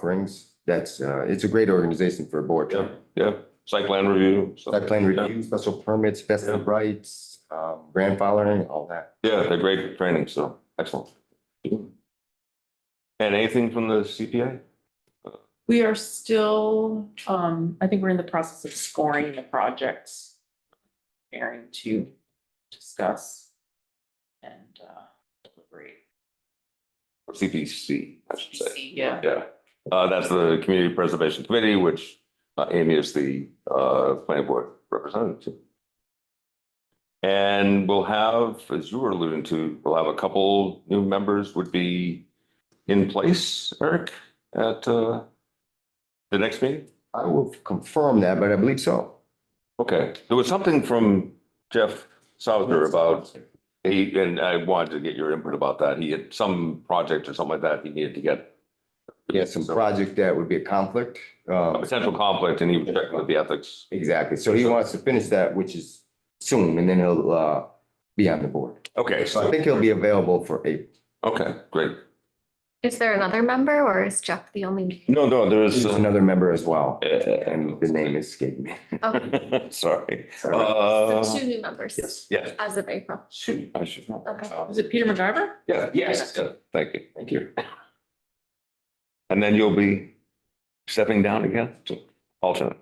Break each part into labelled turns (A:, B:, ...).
A: offerings. That's, uh, it's a great organization for a board.
B: Yeah, yeah, site plan review. stuff.
A: Site plan review, special permits, vested
B: Yeah.
A: rights, um, grandfathering, all that.
B: Yeah, they're great training, so excellent. And anything from the CPA?
C: We are still, um, I think we're in the process of scoring the projects. Preparing to discuss. And, uh, deliberate.
B: Or CPC, I should say.
C: Yeah,
B: Yeah, uh, that's the Community Preservation Committee, which uh, Amy is the, uh, planning board representative to. And we'll have, as you were alluding to, we'll have a couple new members would be in place, Eric, at, uh, the next meeting?
A: I will confirm that, but I believe so.
B: Okay, there was something from Jeff Souter about, he, and I wanted to get your input about that. He had some project or something like that he needed to get.
A: Yeah, some project that would be a conflict.
B: A
A: Um,
B: potential conflict and he was checking with the ethics
A: exactly. So he wants to finish that, which is soon, and then he'll, uh, be on the board.
B: Okay,
A: So I
B: so,
A: think he'll be available for April.
B: okay, great.
D: Is there another member or is Jeff the only?
B: No, no, there
A: There's
B: is. uh,
A: another member as well, and the
B: uh,
A: name escaped me.
D: Okay,
B: Sorry.
A: Sorry.
D: so
B: Uh,
D: two new members.
A: Yes.
B: yes.
D: As of April.
B: Shoot, I should know. Uh,
D: Okay.
C: was it Peter MacGyver?
B: Yeah, yes, yeah, thank you. Thank you. And then you'll be stepping down again to alternate.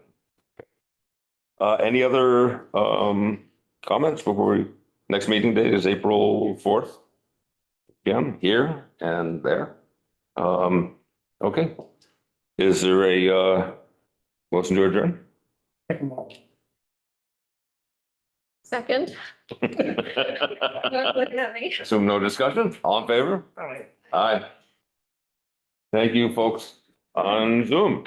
B: Uh, any other, um, comments before we, next meeting date is April fourth? Yeah, here and there. Um, okay. Is there a, uh, motion to adjourn?
D: Second. Don't look at me.
B: Assume no discussion? All in favor? Aye. Aye. Thank you, folks, on Zoom.